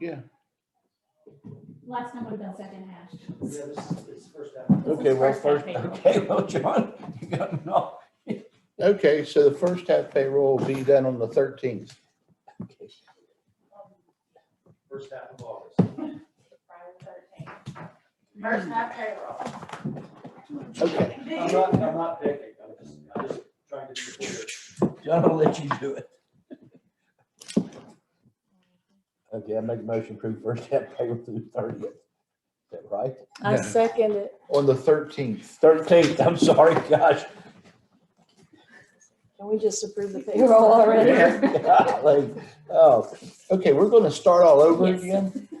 Yeah. Last time would have been second hash. Yeah, this is, this is first half. This is Okay, well, half first, payroll. okay, well, John, you got, no. Okay, so the first half payroll will be done on the thirteenth. first half of August. First half payroll. Okay, I'm not, I'm not picking, I'm just, I'm just trying to. be clear. John, I'll let you do it. Okay, I make a motion to approve first half payroll through thirtieth. Is that right? I Yeah. second it. on the thirteenth. Thirteenth, I'm sorry, gosh. Can we just approve the payroll already? Golly. Oh, Okay, we're going to start all over Yes. again.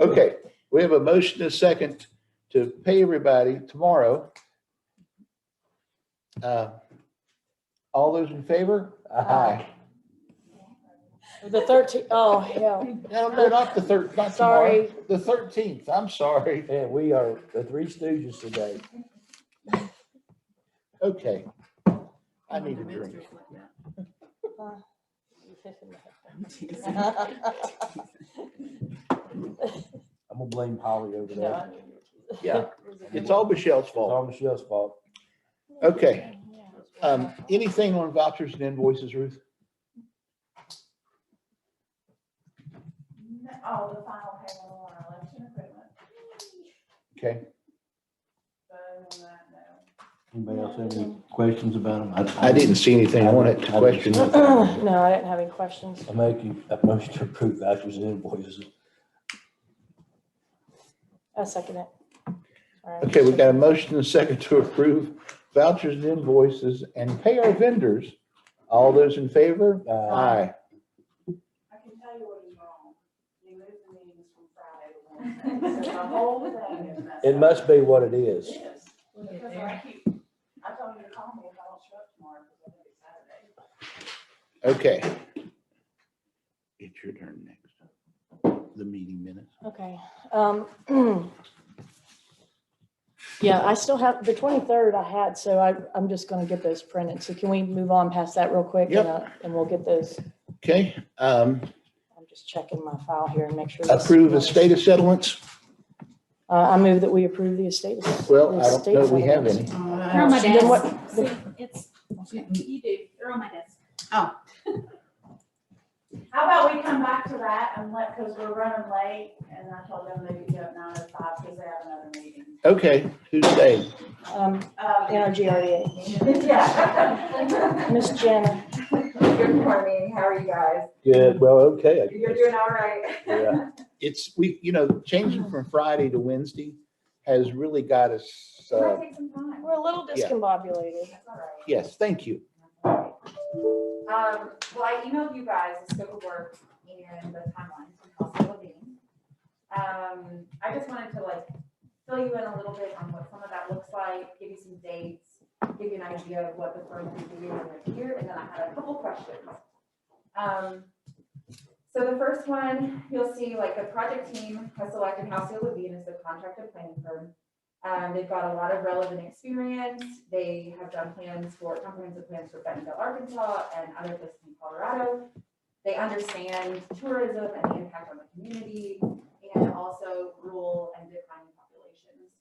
Okay, we have a motion and a second to pay everybody tomorrow. Uh, All those in favor? aye. The thirteen, oh, hell, No, no, not the third, not tomorrow. Sorry. The thirteenth, I'm sorry. Man, we are the three stooges today. Okay. I need a drink. I'm gonna blame Holly over No, that. I need your keys. Yeah, it's all Michelle's It's fault. all Michelle's fault. Okay. Um, anything on vouchers and invoices, Ruth? Oh, the final payroll on election equipment. Okay, So, uh, no. Anybody else have any questions about them? I didn't see anything on it to question. No, I didn't have any questions. I make you, a motion to approve vouchers and invoices. I second it. All right. Okay, we got a motion and a second to approve vouchers and invoices and pay our vendors. All those in favor? Uh, I Aye. can tell you what is wrong. You moved the meetings from Friday to Wednesday, so the whole thing is messed up. It must be what it is. It is. Because I keep, I told you to call me if I don't show up tomorrow, because I think it's Saturday. Okay. It's your turn next. The meeting minutes. Okay, um, yeah, I still have, the twenty-third I had, so I, I'm just gonna get those printed, so can we move on past that real quick? Yep. And, uh, and we'll get those, Okay, um, I'm just checking my file here and make sure. this- approve estate of settlements? Uh, I move that we approve the estate. Well, I don't know if we have any. They're on my Then desk. what- See, It's, you do, they're on my desk. How about we come back to that and let, because we're running late, and I told them they could go at nine oh five, because they have another meeting. Okay, who's they? Um, Um, NRGREA. Yeah. Miss Jenna, Good morning, how are you guys? Good, well, okay. I guess. all right. Yeah. It's, we, you know, changing from Friday to Wednesday has really got us, It uh, might take some time. we're a little Yeah. discombobulated. That's all right. yes, thank you. Um, well, I emailed you guys the scope of work and the timelines from Cost of Living. Um, I just wanted to like fill you in a little bit on what some of that looks like, give you some dates, give you an idea of what the firm is doing right here, and then I had a couple questions. Um, so the first one, you'll see like the project team has selected Houseo Levine as the contractor planning firm. Um, they've got a lot of relevant experience. They have done plans for comprehensive plans for Bentonville, Arkansas and other places in Colorado. They understand tourism and the impact on the community and also rural and declining populations.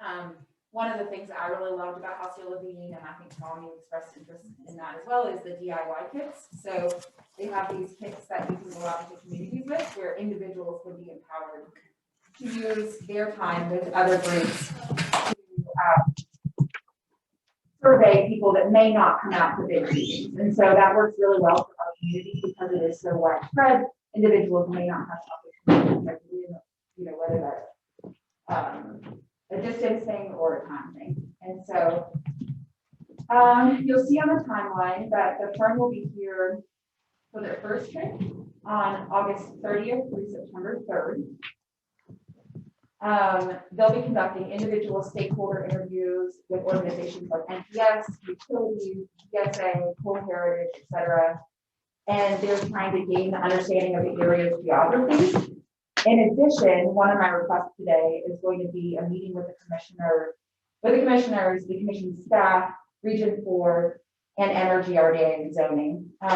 Um, one of the things I really loved about Houseo Levine, and I think Tommy expressed interest in that as well, is the DIY kits. So they have these kits that you can go out into communities with where individuals would be empowered to use their time with other groups to um, survey people that may not come out to big meetings. And so that works really well for our community because it is so widespread. Individuals may not have opportunities, like, you know, you know, whether that's um, a distance thing or a time thing. And so um, you'll see on the timeline that the firm will be here for their first trip on August thirtieth through September third. Um, they'll be conducting individual stakeholder interviews with organizations like NPS, utilities, DSA, Cool Heritage, et cetera. And they're trying to gain the understanding of the area's geography. In addition, one of my requests today is going to be a meeting with the commissioner, with the commissioners, the commission staff, Region Four, and Energy RDA and zoning. Um,